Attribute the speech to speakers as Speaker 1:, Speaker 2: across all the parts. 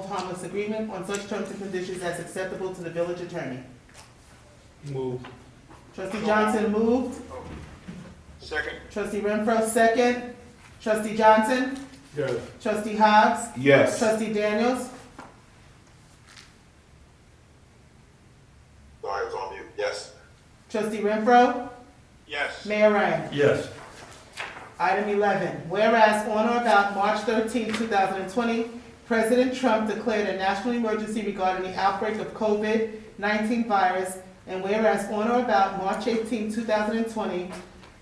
Speaker 1: harmless agreement on such terms and conditions as acceptable to the village attorney.
Speaker 2: Move.
Speaker 1: Trustee Johnson moved,
Speaker 3: Second.
Speaker 1: trustee Renfro second, trustee Johnson,
Speaker 2: Yes.
Speaker 1: trustee Hobbs,
Speaker 4: Yes.
Speaker 1: trustee Daniels,
Speaker 3: Sorry, I was on mute. Yes.
Speaker 1: trustee Renfro,
Speaker 3: Yes.
Speaker 1: Mayor Ryan.
Speaker 2: Yes.
Speaker 1: Item 11, whereas on or about March 13, 2020, President Trump declared a national emergency regarding the outbreak of COVID-19 virus, and whereas on or about March 18, 2020,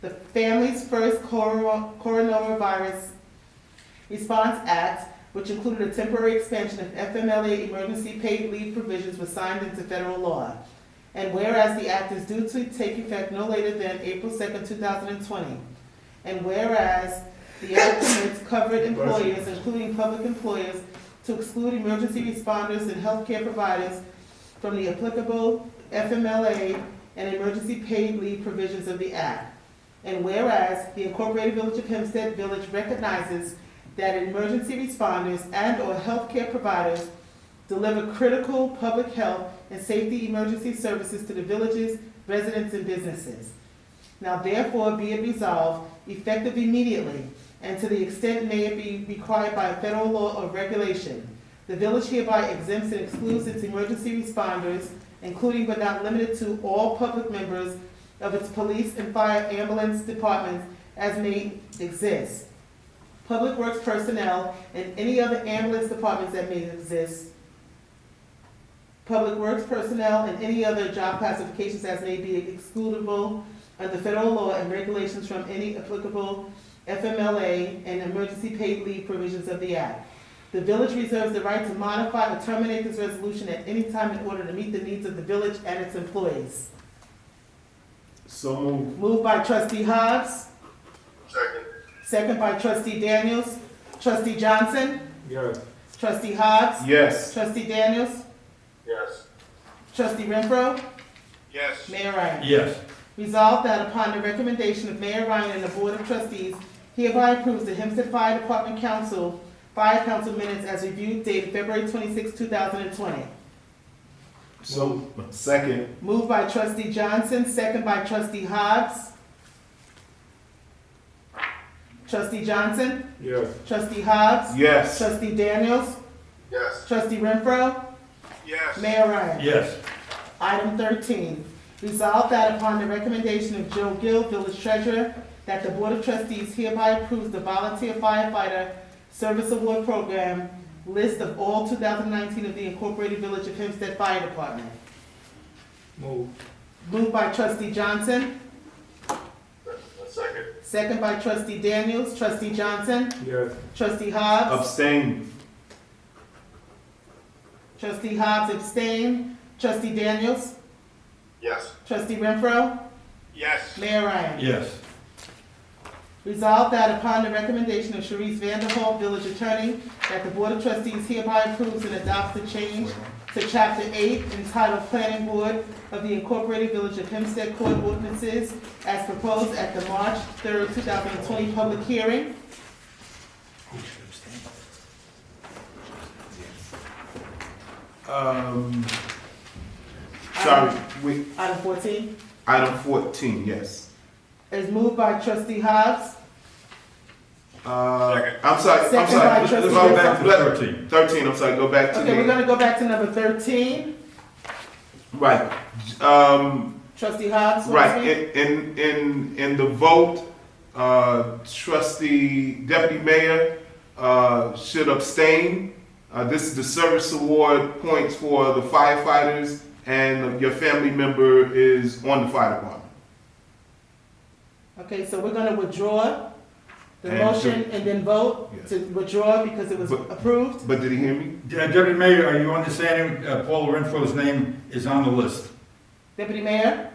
Speaker 1: the Families First Coro- Coronavirus Response Act, which included a temporary expansion of FMLA emergency paid leave provisions, was signed into federal law. And whereas the act is due to take effect no later than April 2, 2020, and whereas the act permits covered employers, including public employers, to exclude emergency responders and healthcare providers from the applicable FMLA and emergency paid leave provisions of the act. And whereas the Incorporated Village of Hempstead Village recognizes that emergency responders and/or healthcare providers deliver critical public health and safety emergency services to the villages, residents, and businesses. Now therefore be it resolved, effective immediately, and to the extent may it be required by federal law or regulation, the village hereby exempts and excludes its emergency responders, including but not limited to all public members of its police and fire ambulance departments as may exist, public works personnel, and any other ambulance departments that may exist, public works personnel, and any other job classifications as may be excludable under federal law and regulations from any applicable FMLA and emergency paid leave provisions of the act. The village reserves the right to modify or terminate this resolution at any time in order to meet the needs of the village and its employees.
Speaker 4: So moved.
Speaker 1: Moved by trustee Hobbs,
Speaker 3: Second.
Speaker 1: second by trustee Daniels. Trustee Johnson,
Speaker 2: Yes.
Speaker 1: trustee Hobbs,
Speaker 4: Yes.
Speaker 1: trustee Daniels,
Speaker 3: Yes.
Speaker 1: trustee Renfro,
Speaker 3: Yes.
Speaker 1: Mayor Ryan.
Speaker 2: Yes.
Speaker 1: Resolved that upon the recommendation of Mayor Ryan and the Board of Trustees, hereby approves the Hempstead Fire Department Council, Fire Council minutes as reviewed dated February 26, 2020.
Speaker 4: So, second.
Speaker 1: Moved by trustee Johnson, second by trustee Hobbs. Trustee Johnson,
Speaker 2: Yes.
Speaker 1: trustee Hobbs,
Speaker 4: Yes.
Speaker 1: trustee Daniels,
Speaker 3: Yes.
Speaker 1: trustee Renfro,
Speaker 3: Yes.
Speaker 1: Mayor Ryan.
Speaker 2: Yes.
Speaker 1: Item thirteen, resolve that upon the recommendation of Joe Gill, village treasurer, that the board of trustees hereby approves the volunteer firefighter service award program list of all two thousand nineteen of the Incorporated Village of Hempstead Fire Department.
Speaker 2: Move.
Speaker 1: Moved by trustee Johnson,
Speaker 3: Second.
Speaker 1: second by trustee Daniels, trustee Johnson,
Speaker 2: Yes.
Speaker 1: trustee Hobbs.
Speaker 4: Abstain.
Speaker 1: Trustee Hobbs abstained, trustee Daniels,
Speaker 3: Yes.
Speaker 1: trustee Renfro,
Speaker 3: Yes.
Speaker 1: Mayor Ryan.
Speaker 2: Yes.
Speaker 1: Resolved that upon the recommendation of Sharice Vanderhall, village attorney, that the Board of Trustees hereby approves and adopts the change to Chapter 8 entitled Planning Board of the Incorporated Village of Hempstead Court Ordinances as proposed at the March 3, 2020 public hearing.
Speaker 4: Um, sorry, wait,
Speaker 1: Item 14
Speaker 4: item fourteen, yes.
Speaker 1: is moved by trustee Hobbs,
Speaker 4: Uh,
Speaker 3: Second.
Speaker 4: I'm sorry, I'm
Speaker 1: Second by
Speaker 4: sorry. Let's
Speaker 1: trustee
Speaker 4: go back to
Speaker 2: Renfro.
Speaker 4: thirteen. Thirteen, I'm sorry, go back to
Speaker 1: Okay, we're
Speaker 4: the,
Speaker 1: gonna go back to number 13.
Speaker 4: right. Um,
Speaker 1: Trustee Hobbs, want to
Speaker 4: Right,
Speaker 1: speak?
Speaker 4: in, in, in, in the vote, uh, trustee, deputy mayor, uh, should abstain. Uh, this is the service award points for the firefighters and your family member is on the fire department.
Speaker 1: Okay, so we're gonna withdraw the
Speaker 4: And to-
Speaker 1: motion and then vote
Speaker 4: Yes.
Speaker 1: to withdraw because it was
Speaker 4: But-
Speaker 1: approved.
Speaker 4: But did he hear me?
Speaker 5: Deputy Mayor, are you understanding uh, Paul Renfro's name is on the list?
Speaker 1: Deputy Mayor?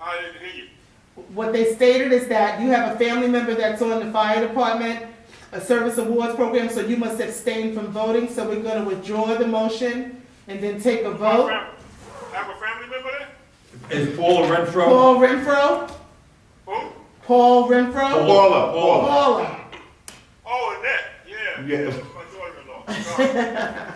Speaker 3: I didn't hear you.
Speaker 1: What they stated is that you have a family member that's on the fire department, a service awards program, so you must abstain from voting, so we're gonna withdraw the motion and then take a vote.
Speaker 3: Have a family member there?
Speaker 5: Is Paul Renfro?
Speaker 1: Paul Renfro,
Speaker 3: Who?
Speaker 1: Paul
Speaker 4: Oh,
Speaker 1: Renfro,
Speaker 4: Paula, Paula.
Speaker 1: Paula.
Speaker 3: Oh, and that, yeah.
Speaker 4: Yeah.
Speaker 3: That's My daughter-in-law. Sorry.